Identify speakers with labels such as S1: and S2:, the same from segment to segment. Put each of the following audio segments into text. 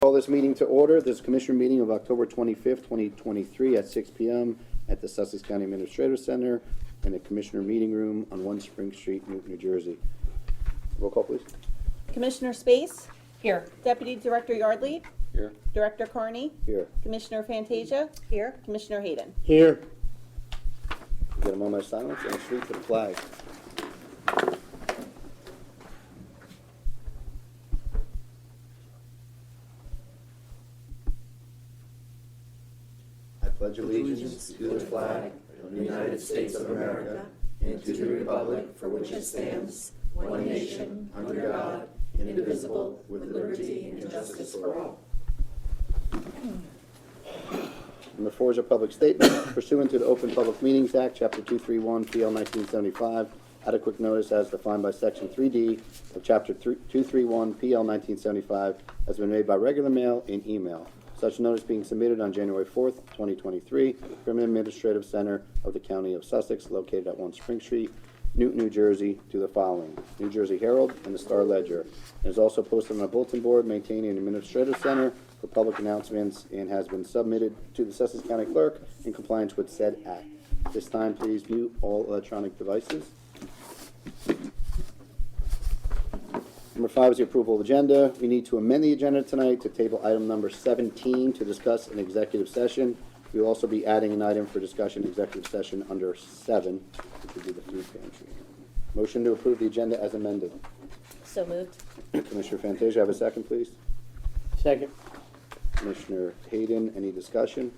S1: Call this meeting to order. This commissioner meeting of October 25th, 2023 at 6 PM at the Sussex County Administrative Center in the Commissioner Meeting Room on One Spring Street, Newton, New Jersey. Roll call, please.
S2: Commissioner Space,
S3: Here.
S2: Deputy Director Yardley,
S4: Here.
S2: Director Carney,
S1: Here.
S2: Commissioner Fantasia. Here. Commissioner Hayden.
S1: Here. Get a moment of silence and a salute to the flag. I pledge allegiance to the flag of the United States of America and to the republic for which it stands, one nation, under God, indivisible, with liberty and justice for all. Number four is a public statement pursuant to the Open Public Meetings Act, Chapter 231, PL 1975. Adequate notice as defined by Section 3D of Chapter 3- 231, PL 1975, has been made by regular mail and email. Such notice being submitted on January 4th, 2023, from the Administrative Center of the County of Sussex, located at 1 Spring Street, Newton, New Jersey, to the following: New Jersey Herald and the Star Ledger. It is also posted on a bulletin board maintaining an administrative center for public announcements and has been submitted to the Sussex County Clerk in compliance with said act. This time, please mute all electronic devices. Number five is the approval of agenda. We need to amend the agenda tonight to table item number 17 to discuss an executive session. We will also be adding an item for discussion executive session under seven, which would be the food pantry. Motion to approve the agenda as amended.
S3: So moved.
S1: Commissioner Fantasia, have a second, please.
S5: Second.
S1: Commissioner Hayden, any discussion?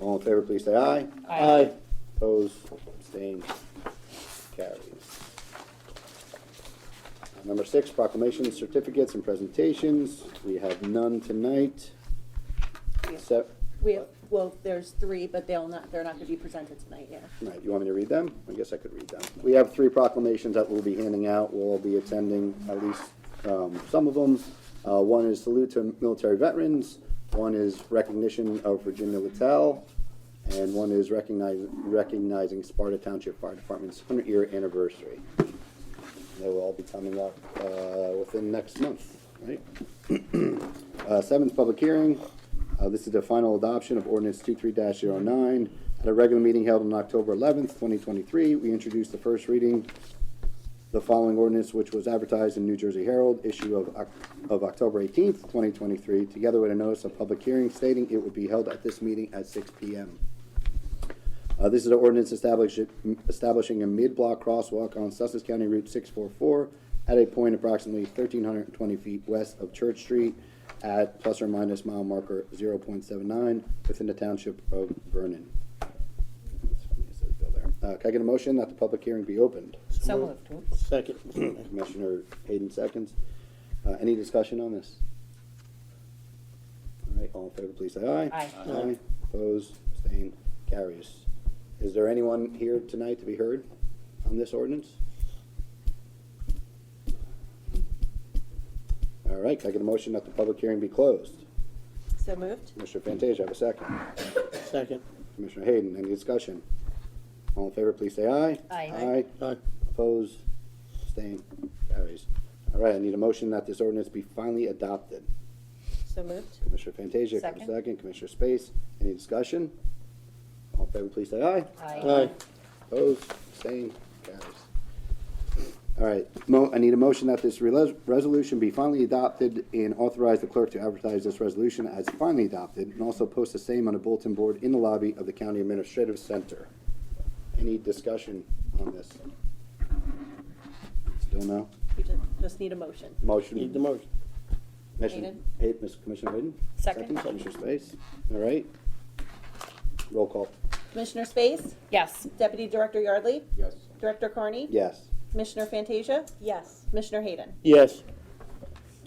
S1: All in favor, please say aye.
S3: Aye.
S1: Opposed, abstained, carries. Number six, proclamations, certificates, and presentations. We have none tonight. Except,
S2: We have, well, there's three, but they'll not, they're not gonna be presented tonight, yeah.
S1: Right, you want me to read them? I guess I could read them. We have three proclamations that we'll be handing out. We'll all be attending at least um, some of them. Uh, One is salute to military veterans, one is recognition of Virginia Littell, and one is recognize- recognizing Sparta Township Fire Department's 100-year anniversary. They will all be coming up uh, within next month, right? Uh, Seventh, public hearing. Uh, This is the final adoption of ordinance 23-09. At a regular meeting held on October 11th, 2023, we introduced the first reading, the following ordinance, which was advertised in New Jersey Herald, issue of Oc- of October 18th, 2023, together with a notice of public hearing stating it would be held at this meeting at 6 PM. Uh, this is an ordinance establish- establishing a mid-block crosswalk on Sussex County Route 644 at a point approximately 1,320 feet west of Church Street at plus or minus mile marker 0.79 within the township of Vernon. Uh, Can I get a motion that the public hearing be opened?
S3: So moved.
S5: Second.
S1: Commissioner Hayden seconds. Uh, Any discussion on this? All right, all in favor, please say aye.
S3: Aye. Aye.
S1: Aye, opposed, abstained, carries. Is there anyone here tonight to be heard on this ordinance? All right, can I get a motion that the public hearing be closed?
S2: So moved?
S1: Commissioner Fantasia, have a second.
S5: Second.
S1: Commissioner Hayden, any discussion? All in favor, please say aye.
S3: Aye.
S1: Aye.
S5: Aye.
S1: Opposed, abstained, carries. All right, I need a motion that this ordinance be finally adopted.
S2: So moved?
S1: Commissioner Fantasia, Commissioner
S3: Second.
S1: Second, Commissioner Space, any discussion? All in favor, please say aye.
S3: Aye.
S5: Aye.
S1: Opposed, abstained, carries. All right, mo, I need a motion that this reles- resolution be finally adopted and authorize the clerk to advertise this resolution as finally adopted and also post the same on a bulletin board in the lobby of the county administrative center. Any discussion on this? Still no?
S2: We just, just need a motion.
S1: Motion?
S5: Need the motion.
S1: Commissioner,
S2: Hayden.
S1: Hay- Miss Commissioner Hayden?
S3: Second.
S1: Commissioner Space, all right. Roll call,
S2: Commissioner Space,
S3: Yes.
S2: Deputy Director Yardley,
S4: Yes.
S2: Director Carney.
S1: yes.
S2: Commissioner Fantasia. Yes. Commissioner Hayden.
S5: Yes.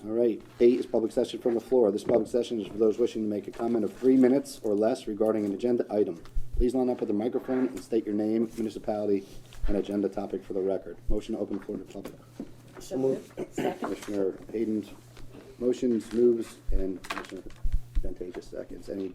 S1: All right, eight is public session from the floor. This public session is for those wishing to make a comment of three minutes or less regarding an agenda item. Please line up with the microphone and state your name, municipality, and agenda topic for the record. Motion to open floor to public.
S5: So moved.
S2: Second.
S1: Commissioner Hayden's motions, moves, and Commissioner Fantasia seconds. Any